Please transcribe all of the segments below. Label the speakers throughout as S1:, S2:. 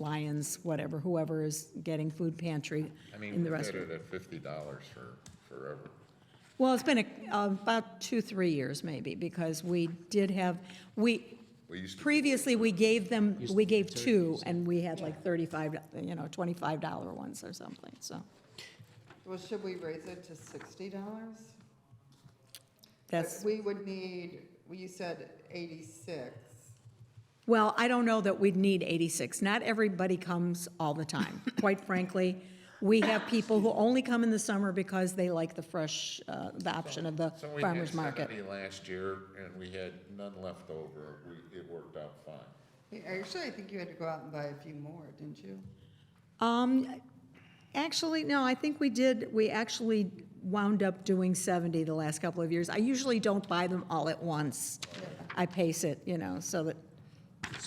S1: Lions, whatever, whoever is getting food pantry
S2: I mean,
S1: in the
S2: we did
S1: restaurant.
S2: it at fifty dollars for forever.
S1: Well, it's been a- uh, about two, three years maybe, because we did have, we,
S2: We used to-
S1: previously, we gave them, we gave two, and we had like 35, you know, $25 ones or something, so
S3: Well, should we raise it to sixty dollars?
S1: that's,
S3: We would need, well, you said eighty-six.
S1: well, I don't know that we'd need 86. Not everybody comes all the time, quite frankly. We have people who only come in the summer because they like the fresh, uh, the option of the
S2: So we had
S1: farmer's market.
S2: seventy last year and we had none left over. We, it worked out fine.
S3: Actually, I think you had to go out and buy a few more, didn't you?
S1: Um, actually, no, I think we did, we actually wound up doing 70 the last couple of years. I usually don't buy them all at once. I pace it, you know, so that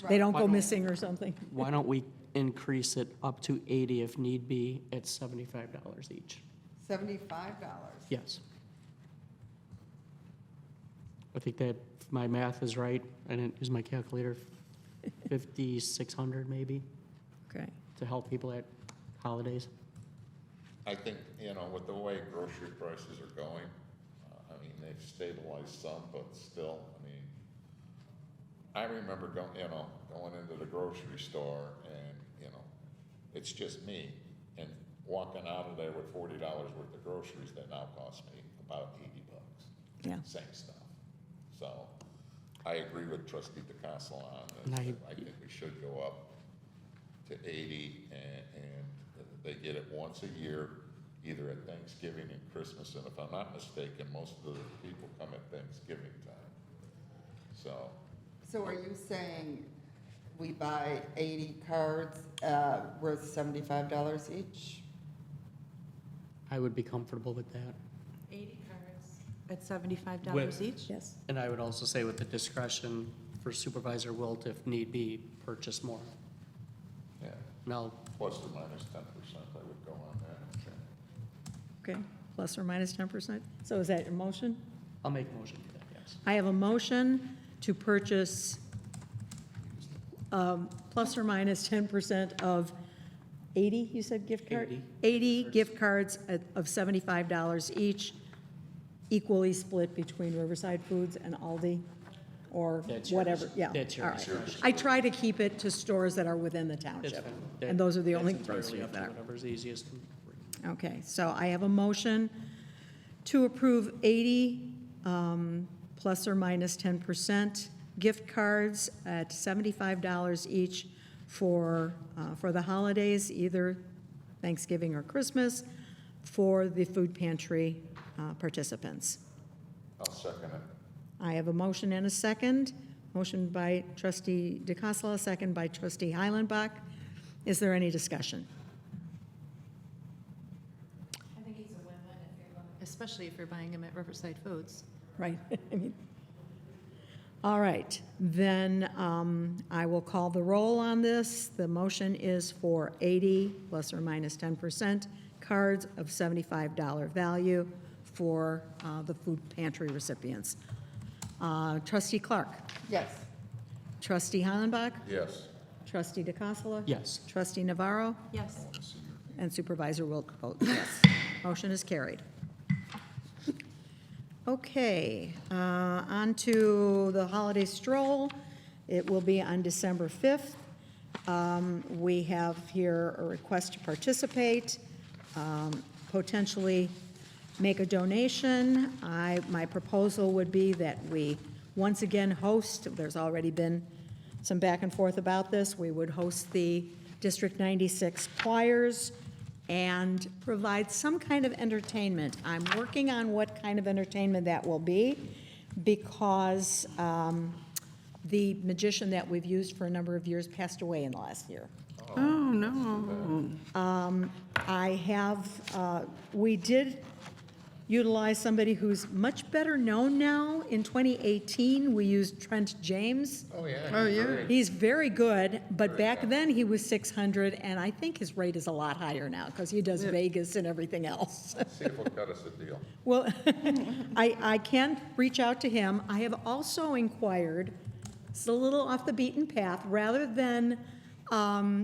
S1: they don't go missing or something.
S4: Why don't we increase it up to 80 if need be at $75 each?
S3: Seventy-five dollars.
S4: Yes. I think that if my math is right, and it is my calculator, 5,600 maybe
S1: Okay.
S4: to help people at holidays.
S2: I think, you know, with the way grocery prices are going, uh, I mean, they've stabilized some, but still, I mean, I remember going, you know, going into the grocery store and, you know, it's just me and walking out of there with forty dollars worth of groceries that now cost me about eighty bucks.
S1: Yeah.
S2: Same stuff. So I agree with trustee DeCastle on
S4: And
S2: this.
S4: I-
S2: that I think we should go up to eighty and, and they get it once a year, either at Thanksgiving and Christmas. And if I'm not mistaken, most of the people come at Thanksgiving time. So,
S3: So are you saying we buy eighty cards, uh, worth seventy-five dollars each?
S4: I would be comfortable with that.
S5: 80 cards at $75 each?
S1: Yes.
S4: And I would also say with the discretion for Supervisor Wilt, if need be, purchase more.
S2: yeah,
S4: Now,
S2: plus or minus ten percent, I would go on that.
S1: Okay, plus or minus 10%. So is that your motion?
S4: I'll make a motion for that, yes.
S1: I have a motion to purchase um, plus or minus 10% of 80, you said gift card?
S4: 80.
S1: 80 gift cards at- of $75 each, equally split between Riverside Foods and Aldi, or
S4: That's your-
S1: whatever, yeah.
S4: that's your
S1: all right.
S4: discretion.
S1: I try to keep it to stores that are within the
S4: It's
S1: township,
S4: fine.
S1: and those are the
S4: That's
S1: only
S4: entirely
S1: grocery
S4: up to
S1: that are.
S4: Whatever's easiest.
S1: Okay, so I have a motion to approve 80 um, plus or minus 10% gift cards at $75 each for, uh, for the holidays, either Thanksgiving or Christmas, for the food pantry uh, participants.
S2: I'll second it.
S1: I have a motion and a second. Motion by trustee DeCassola, second by trustee Heilenbach. Is there any discussion?
S5: I think it's a win-win if you're buying. Especially if you're buying them at Riverside Foods.
S1: Right. I mean, All right, then um, I will call the roll on this. The motion is for 80 plus or minus 10% cards of $75 value for uh, the food pantry recipients. Uh, Trustee Clark,
S3: Yes.
S1: trustee Hollenbach,
S2: Yes.
S1: trustee DeCassola.
S4: Yes.
S1: Trustee Navarro
S5: Yes.
S1: and Supervisor Wilk votes yes. Motion is carried. Okay, uh, on to the holiday stroll. It will be on December 5th. Um, We have here a request to participate, um, potentially make a donation. I, my proposal would be that we once again host, there's already been some back and forth about this, we would host the District 96 choirs and provide some kind of entertainment. I'm working on what kind of entertainment that will be because um, the magician that we've used for a number of years passed away in the last year. Um, I have, uh, we did utilize somebody who's much better known now. In 2018, we used Trent James.
S2: Oh, yeah. Oh, yeah.
S1: He's very good, but back then he was 600, and I think his rate is a lot higher now because he does Vegas and everything else.
S2: See if he'll cut us a deal.
S1: Well, I, I can reach out to him. I have also inquired, it's a little off the beaten path, rather than um,